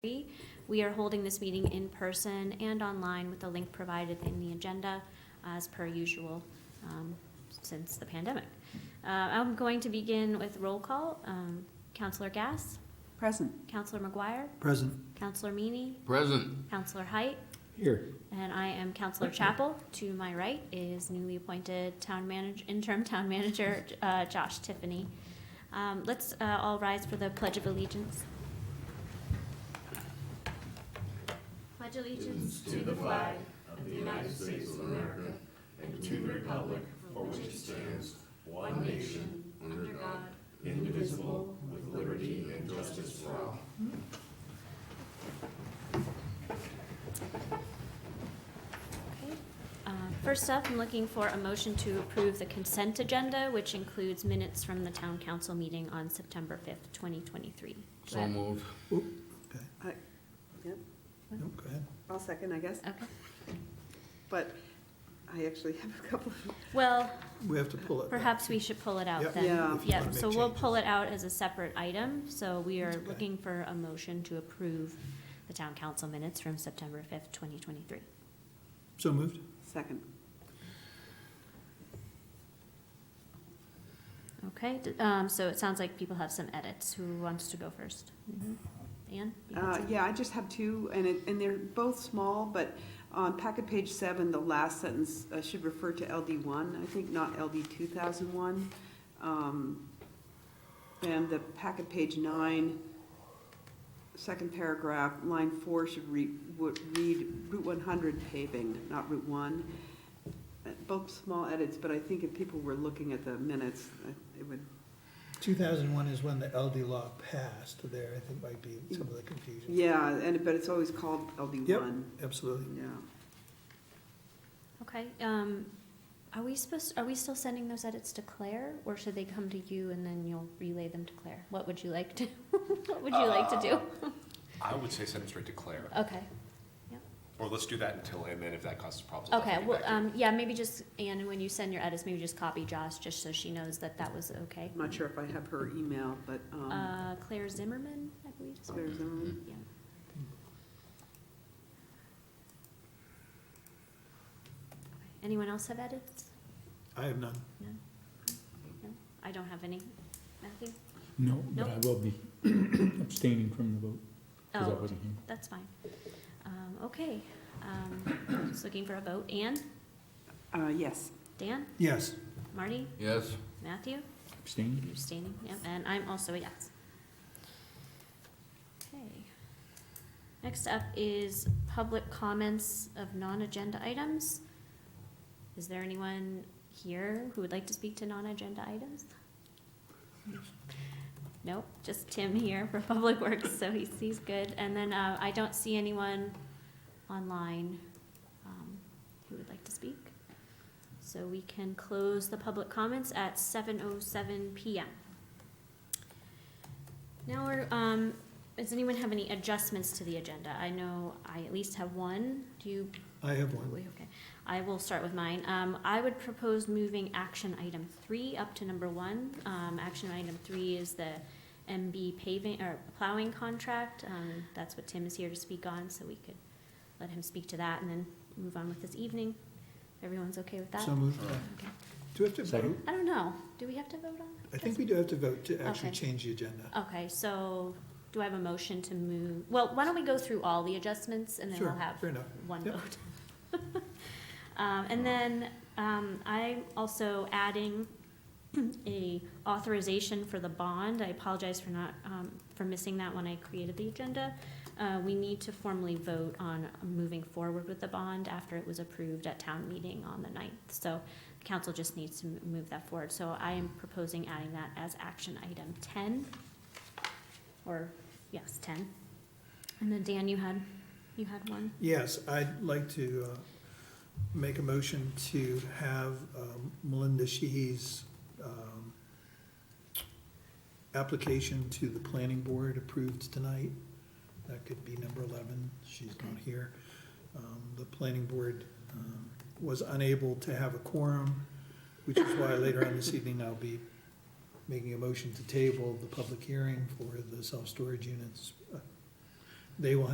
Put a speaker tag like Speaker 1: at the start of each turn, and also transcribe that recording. Speaker 1: three. We are holding this meeting in person and online with the link provided in the agenda as per usual um, since the pandemic. Uh, I'm going to begin with roll call. Um, Counselor Gass,
Speaker 2: Present.
Speaker 1: Counselor McGuire,
Speaker 3: Present.
Speaker 1: Counselor Meany,
Speaker 4: Present.
Speaker 1: Counselor Height,
Speaker 3: Here.
Speaker 1: and I am Counselor Chapel. To my right is newly appointed town manager, interim town manager, uh, Josh Tiffany. Um, Let's uh, all rise for the Pledge of Allegiance. Pledge allegiance to the flag Okay. Uh, First up, I'm looking for a motion to approve the consent agenda, which includes minutes from the town council meeting on September 5th, 2023. Do I
Speaker 4: So
Speaker 1: have-
Speaker 4: moved.
Speaker 3: Okay,
Speaker 2: Yep,
Speaker 3: Nope, go ahead.
Speaker 2: I'll second, I guess,
Speaker 1: Okay.
Speaker 2: but I actually have a couple of,
Speaker 1: Well,
Speaker 3: We have to pull it. back.
Speaker 1: perhaps we should pull it out
Speaker 3: Yep.
Speaker 1: then.
Speaker 2: Yeah.
Speaker 3: If you
Speaker 1: Yeah,
Speaker 3: wanna
Speaker 1: so
Speaker 3: make
Speaker 1: we'll
Speaker 3: changes.
Speaker 1: pull it out as a separate item, so we are
Speaker 3: Okay.
Speaker 1: looking for a motion to approve the town council minutes from September 5th, 2023.
Speaker 3: So moved?
Speaker 2: second.
Speaker 1: Okay, d- um, so it sounds like people have some edits. Who wants to go first? Anne? you got
Speaker 2: Uh,
Speaker 1: some?
Speaker 2: yeah, I just have two, and it, and they're both small, but on packet page seven, the last sentence uh, should refer to LD one, I think, not LD two thousand one. Um, and the packet page nine, second paragraph, line four should read, would read Route one hundred paving, not Route one. Uh, Both small edits, but I think if people were looking at the minutes, uh, it would,
Speaker 3: Two thousand one is when the LD law passed there, I think might be some of the confusion.
Speaker 2: yeah, and, but it's always called LD
Speaker 3: Yep.
Speaker 2: one,
Speaker 3: Absolutely.
Speaker 2: yeah.
Speaker 1: Okay, um, are we supposed, are we still sending those edits to Claire, or should they come to you and then you'll relay them to Claire? What would you like to, what would you like to do?
Speaker 5: I would say send it straight to Claire,
Speaker 1: Okay,
Speaker 5: or let's do that until, and then if that causes problems. I'll
Speaker 1: okay,
Speaker 5: take it
Speaker 1: well,
Speaker 5: back to you.
Speaker 1: um, yeah, maybe just, Anne, and when you send your edits, maybe just copy Josh, just so she knows that that was okay.
Speaker 2: I'm not sure if I have her email, but, um,
Speaker 1: Uh, Claire Zimmerman, I believe, is her
Speaker 2: there's, um,
Speaker 1: Yeah. Anyone else have edits?
Speaker 3: I have none.
Speaker 1: No? No? I don't have any. Matthew?
Speaker 6: No,
Speaker 1: Nope.
Speaker 6: but I will be abstaining from the vote, because I
Speaker 1: Oh,
Speaker 6: wasn't here.
Speaker 1: that's fine. Um, okay, um, just looking for a vote. Anne,
Speaker 2: uh, yes,
Speaker 1: Dan,
Speaker 3: Yes.
Speaker 1: Marty,
Speaker 4: Yes.
Speaker 1: Matthew?
Speaker 6: Abstaining?
Speaker 1: You're abstaining, yep, and I'm also a yes. Okay. Next up is public comments of non-agenda items. Is there anyone here who would like to speak to non-agenda items? Nope, just Tim here for Public Works, so he's, he's good. And then, uh, I don't see anyone online, um, who would like to speak. So we can close the public comments at seven oh seven PM. Now we're, um, does anyone have any adjustments to the agenda? I know I at least have one. Do you? oh,
Speaker 3: I have one.
Speaker 1: wait, Okay, I will start with mine. Um, I would propose moving action item three up to number one. Um, action item three is the MB paving, or plowing contract. Um, that's what Tim is here to speak on, so we could let him speak to that and then move on with this evening. If Everyone's okay with that?
Speaker 3: So moved.
Speaker 1: Okay.
Speaker 3: Do we have to vote?
Speaker 6: Second.
Speaker 1: I don't know. Do we have to vote on?
Speaker 3: I think we do have to vote to actually
Speaker 1: Okay.
Speaker 3: change the agenda.
Speaker 1: Okay, so do I have a motion to move? Well, why don't we go through all the adjustments and then we'll
Speaker 3: Sure,
Speaker 1: have
Speaker 3: fair enough.
Speaker 1: one
Speaker 3: Yep.
Speaker 1: vote? Um, and then, um, I'm also adding a authorization for the bond. I apologize for not, um, for missing that when I created the agenda. Uh, we need to formally vote on moving forward with the bond after it was approved at town meeting on the ninth. So the council just needs to m- move that forward. So I am proposing adding that as action item ten, or, yes, ten. And then Dan, you had, you had one?
Speaker 3: Yes, I'd like to uh, make a motion to have um, Melinda Sheehy's um, application to the planning board approved tonight. That could be number 11, she's not here. Um, The planning board um, was unable to have a quorum, which is why later on this evening I'll be making a motion to table the public hearing for the self-storage units uh, They will